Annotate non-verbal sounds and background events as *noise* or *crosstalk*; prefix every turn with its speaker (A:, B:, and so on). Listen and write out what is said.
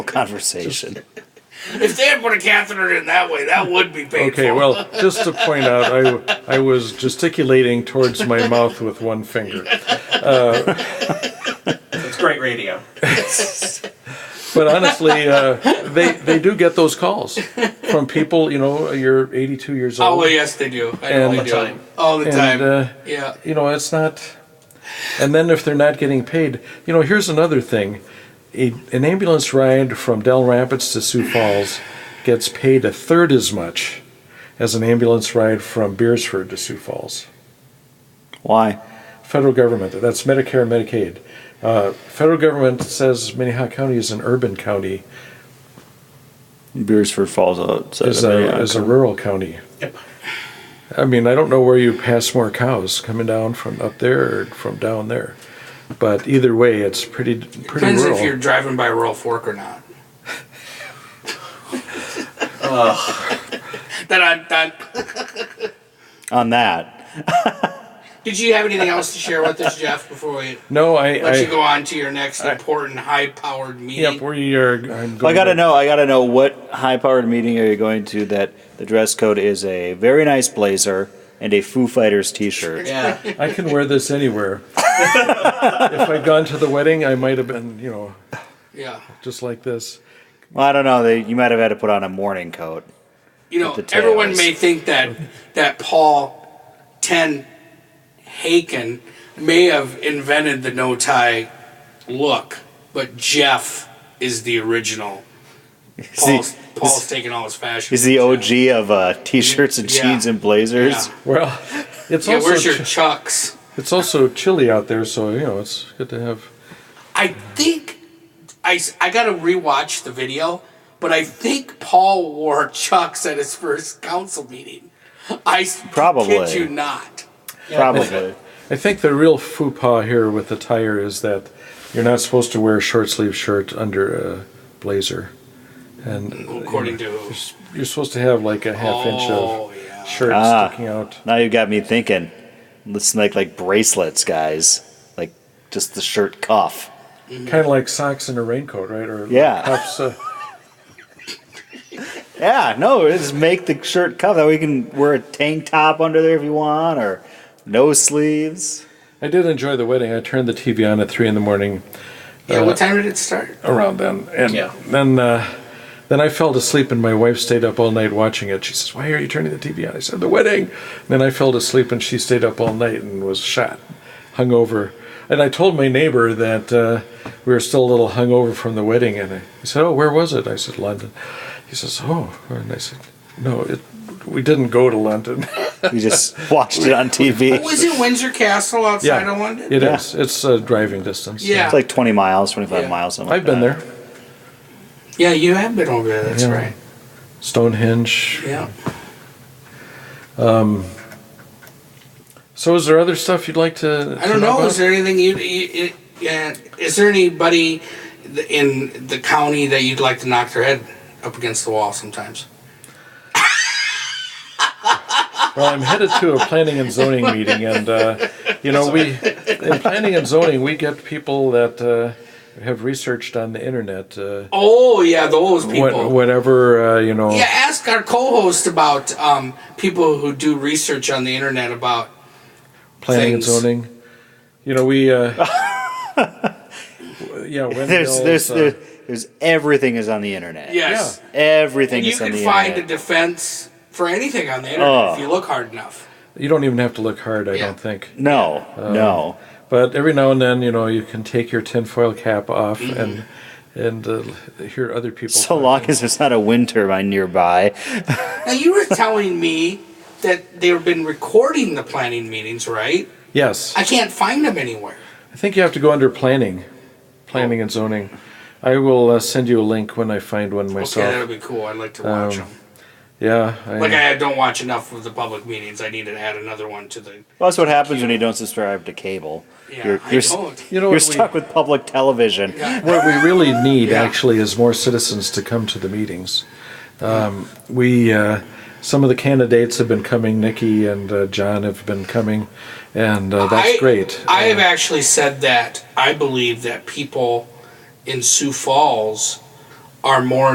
A: conversation.
B: If they had put a catheter in that way, that would be painful.
C: Okay, well, just to point out, I, I was gesticulating towards my mouth with one finger.
D: It's great radio.
C: But honestly, uh, they they do get those calls from people. You know, you're 82 years
B: Oh
C: old,
B: well, yes, they do. I know
C: And-
B: they
C: All the
B: do.
D: time.
B: All the
C: and
B: time.
C: uh,
B: yeah.
C: you know it's not. And then if they're not getting paid, you know, here's another thing: a, an ambulance ride from Del Rapids to Sioux Falls gets paid a third as much as an ambulance ride from Beersford to Sioux Falls.
A: Why?
C: federal government. That's Medicare and Medicaid. Uh, federal government says Minnehaha County is an urban county,
A: Beersford Falls out.
C: is a, is a rural county.
D: Yep.
C: I mean, I don't know where you pass more cows coming down from up there or from down there, but either way, it's pretty pretty
B: Depends
C: rural.
B: if you're driving by a rural fork or not. *laughs* Dun, dun, dun.
A: on that.
B: Did you have anything else to share with us, Jeff, before we
C: no, I.
B: let
C: I
B: you go on to your next important high-powered meeting?
C: Yep, we are. I'm
A: I
C: going
A: gotta
C: to-
A: know. I gotta know what high-powered meeting are you going to that the dress code is a very nice blazer and a Foo Fighters T-shirt.
D: Yeah.
C: I can wear this anywhere. if I'd gone to the wedding, I might have been, you know,
B: yeah.
C: just like this.
A: Well, I don't know. They, you might have had to put on a morning coat.
B: You know,
A: the tail
B: everyone
A: is-
B: may think that that Paul Ten Haken may have invented the no tie look, but Jeff is the original. Paul's, Paul's taking all his fashion.
A: He's the OG of uh, T-shirts and
B: Yeah.
A: jeans and blazers.
B: Yeah.
C: Well, it's
B: Yeah,
C: also
B: where's your
C: ch-
B: chucks?
C: It's also chilly out there, so you know it's good to have.
B: I think I, s- I gotta rewatch the video, but I think Paul wore chucks at his first council meeting. I s-
A: Probably.
B: kid you not.
A: Probably.
C: I think the real faux pas here with the tire is that you're not supposed to wear a short sleeve shirt under a blazer, and
B: According to
C: you're supposed to have like a half inch of
B: oh yeah.
C: shirt
A: Ah.
C: sticking out.
A: Now you got me thinking. It's like like bracelets, guys. Like just the shirt cuff.
C: Kind of like socks and a raincoat, right? Or
A: Yeah.
C: cuffs. Uh,
A: Yeah, no, just make the shirt cuff. That way you can wear a tank top under there if you want, or no sleeves.
C: I did enjoy the wedding. I turned the TV on at three in the morning
B: Yeah,
C: Uh,
B: what time did it start?
C: around then, and
D: Yeah.
C: then uh, then I fell asleep, and my wife stayed up all night watching it. She says, "Why are you turning the TV on?" I said, "The wedding." And then I fell asleep, and she stayed up all night and was shot, hungover. And I told my neighbor that uh, we were still a little hungover from the wedding, and I, he said, "Oh, where was it?" I said, "London." He says, "Oh," and I said, "No, it, we didn't go to London." *laughs*
A: You
B: *laughs*
A: just watched it on TV.
B: Was it Windsor Castle outside of London?
C: it is.
A: Yeah.
C: It's a driving distance.
B: Yeah.
A: It's like 20 miles, 25
B: Yeah.
A: miles. Something
C: I've been
A: like
C: there.
A: that.
B: Yeah, you have been over there. That's
C: Yeah.
B: right.
C: Stonehenge.
B: Yeah.
C: So, is there other stuff you'd like to?
B: I don't know. Is there anything you? you, you uh, is there anybody th- in the county that you'd like to knock their head up against the wall sometimes?
C: Well, I'm headed to a planning and zoning meeting, and uh, you know, we in planning and zoning we get people that uh, have researched on the internet, uh,
B: Oh yeah, those
C: what,
B: people.
C: whatever uh, you know.
B: Yeah, ask our co-host about um, people who do research on the internet about.
C: planning
B: things.
C: and zoning. You know, we. Uh, yeah,
A: *laughs* There's,
C: windmills,
A: there's,
C: uh,
A: there's, there's everything is on the internet.
B: Yes,
A: Everything
B: you
A: is on
B: can
A: the
B: find a
A: internet.
B: defense for anything on the internet
A: Oh.
B: if you look hard enough.
C: you don't even have to look hard, I
B: Yeah.
C: don't think.
A: no,
C: Oh.
A: no.
C: But every now and then, you know, you can take your tinfoil cap off
B: Mm-hmm.
C: and and uh, hear other people.
A: So
C: talk.
A: long as there's not a wind turbine nearby.
B: Now you were telling me that they've been recording the planning meetings, right?
C: Yes.
B: I can't find them anywhere.
C: I think you have to go under planning, planning and zoning. I will uh, send you a link when I find one
B: Okay, that'll
C: myself.
B: be cool. I'd like to watch
C: Um,
B: them.
C: yeah, I,
B: Like I don't watch enough of the public meetings. I need to add another one to the.
A: Well, that's what happens when you don't subscribe to cable.
B: Yeah,
A: You're-
B: I
A: you're-
B: don't.
C: you know
A: You're
C: what we,
A: stuck with public television.
C: what we really need
B: Yeah.
C: actually is more citizens to come to the meetings. Um, we uh, some of the candidates have been coming. Nikki and uh, John have been coming, and uh,
B: I-
C: that's great.
B: I have
C: Uh,
B: actually said that I believe that people in Sioux Falls are more